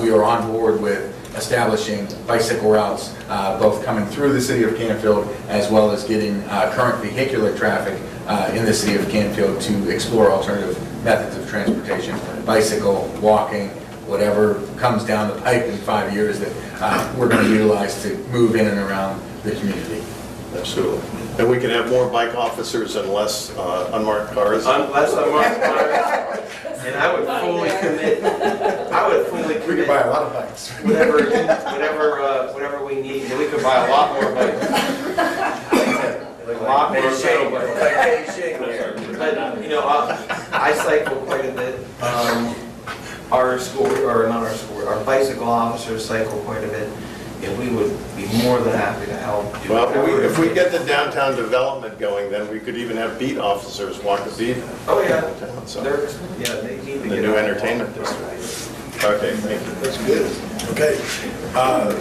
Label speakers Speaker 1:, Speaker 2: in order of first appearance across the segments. Speaker 1: we are on board with establishing bicycle routes, uh, both coming through the city of Canfield as well as getting uh, current vehicular traffic uh, in the city of Canfield to explore alternative methods of transportation, bicycle, walking, whatever comes down the pipe in five years that uh, we're going to utilize to move in and around the community.
Speaker 2: Absolutely. And we can have more bike officers and less uh, unmarked cars.
Speaker 3: Unless I'm on fire, and I would fully commit, I would fully
Speaker 1: We could buy
Speaker 3: commit
Speaker 1: a lot of bikes.
Speaker 3: whatever, whatever, uh, whatever we need, and we could buy a lot more bikes. A lot more metal bikes. But, you know, I I cycle quite a bit. Um, Our school, or not our school, our bicycle officers cycle quite a bit, and we would be more than happy to help. do
Speaker 2: Well, if we- if we
Speaker 3: whatever.
Speaker 2: get the downtown development going, then we could even have beat officers walk the beat.
Speaker 3: Oh, yeah.
Speaker 2: downtown, so.
Speaker 3: They're, yeah, they need
Speaker 2: The
Speaker 3: to get.
Speaker 2: new
Speaker 3: out.
Speaker 2: entertainment district. Okay, thank you.
Speaker 4: That's good. Okay. Uh,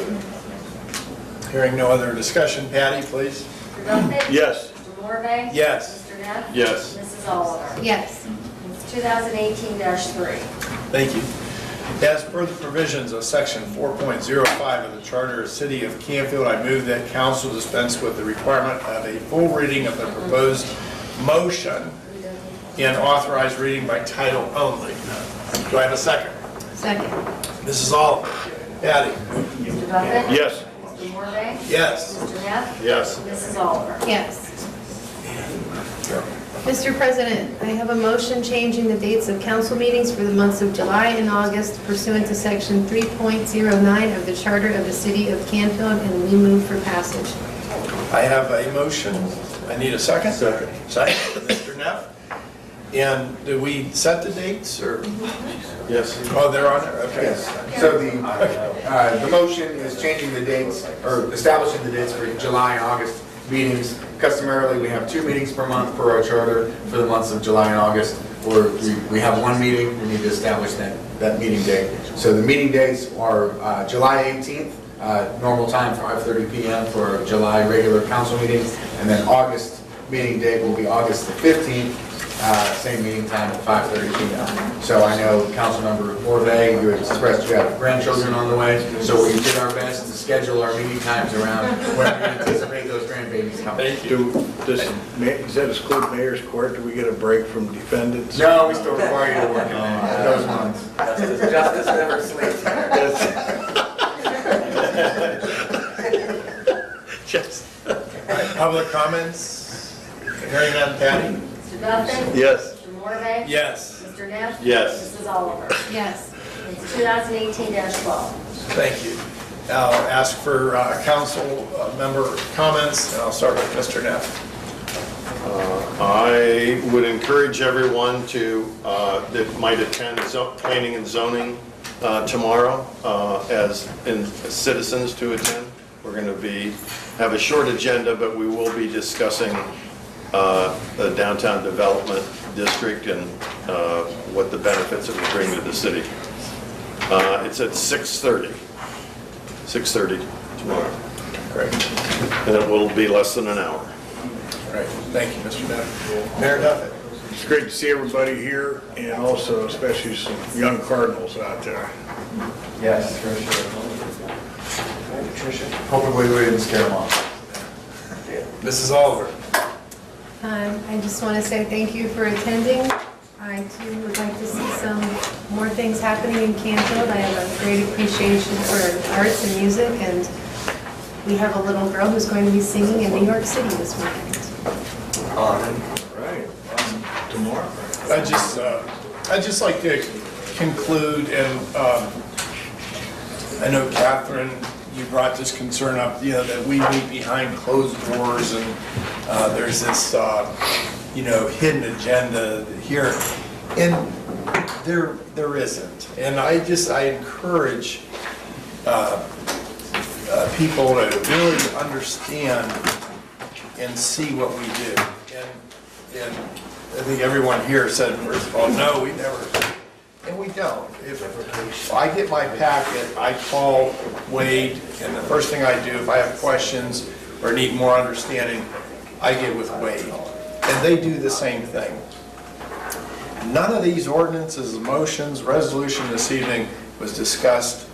Speaker 4: Hearing no other discussion, Patty, please.
Speaker 5: Mr. Duffy?
Speaker 2: Yes.
Speaker 5: Mr. Morve?
Speaker 4: Yes.
Speaker 5: Mr. Neff?
Speaker 2: Yes.
Speaker 5: Mrs. Oliver?
Speaker 6: Yes.
Speaker 5: It's 2018-3.
Speaker 4: Thank you. As per the provisions of section 4.05 of the Charter of the City of Canfield, I move that council dispense with the requirement of a full reading of the proposed motion and authorize reading by title only. Do I have a second?
Speaker 6: Second.
Speaker 4: Mrs. Oliver? Patty?
Speaker 5: Mr. Duffy?
Speaker 2: Yes.
Speaker 5: Mr. Morve?
Speaker 4: Yes.
Speaker 5: Mr. Neff?
Speaker 2: Yes.
Speaker 5: Mrs. Oliver?
Speaker 6: Yes. Mr. President, I have a motion changing the dates of council meetings for the months of July and August pursuant to Section 3.09 of the Charter of the City of Canfield, and we move for passage.
Speaker 4: I have a motion. I need a second. Second. Second, Mr. Neff. And do we set the dates or,
Speaker 2: Yes.
Speaker 4: oh, they're on there, okay.
Speaker 1: Yes, so the, uh, the motion is changing the dates, or establishing the dates for July and August meetings. Customarily, we have two meetings per month per our charter for the months of July and August. Or we- we have one meeting, we need to establish that, that meeting date. So the meeting dates are uh, July 18th, uh, normal time, 5:30 PM for our July regular council meeting. And then August meeting date will be August the 15th, uh, same meeting time at 5:30 PM. So I know Councilmember Orve, you expressed you have grandchildren on the way, so we did our best to schedule our meeting times around when we anticipate those grandbabies coming.
Speaker 7: Do, does, ma- does that exclude mayor's court? Do we get a break from defendants?
Speaker 1: No, we still require you to work in uh, those months.
Speaker 3: Justice never sleeps.
Speaker 4: Yes. Public comments? Hearing none, Patty?
Speaker 5: Mr. Duffy?
Speaker 2: Yes.
Speaker 5: Mr. Morve?
Speaker 4: Yes.
Speaker 5: Mr. Neff?
Speaker 2: Yes.
Speaker 5: Mrs. Oliver?
Speaker 6: Yes.
Speaker 5: It's 2018-12.
Speaker 4: Thank you. I'll ask for uh, council uh, member comments, and I'll start with Mr. Neff.
Speaker 2: I would encourage everyone to, uh, that might attend zo- planning and zoning uh, tomorrow, uh, as in citizens to attend. We're going to be, have a short agenda, but we will be discussing uh, the downtown development district and uh, what the benefits it would bring to the city. Uh, It's at 6:30, 6:30 tomorrow,
Speaker 4: Great.
Speaker 2: and it will be less than an hour.
Speaker 4: Great. Thank you, Mr. Neff. Mayor Duffy?
Speaker 7: It's great to see everybody here and also especially some young Cardinals out there.
Speaker 3: Yes, for sure.
Speaker 1: Hopefully, we didn't scare them off.
Speaker 4: Mrs. Oliver?
Speaker 6: Um, I just want to say thank you for attending. I too would like to see some more things happening in Canfield. I have a great appreciation for arts and music, and we have a little girl who's going to be singing in New York City this weekend.
Speaker 7: Right. Tomorrow.
Speaker 4: I just, uh, I'd just like to conclude, and um, I know Catherine, you brought this concern up, you know, that we meet behind closed doors, and uh, there's this, uh, you know, hidden agenda here, and there, there isn't. And I just, I encourage uh, uh, people to really understand and see what we do. And, and I think everyone here said, first of all, no, we never, and we don't. If if I get my packet, I call Wade, and the first thing I do, if I have questions or need more understanding, I get with Wade. And they do the same thing. None of these ordinances, motions, resolution this evening was discussed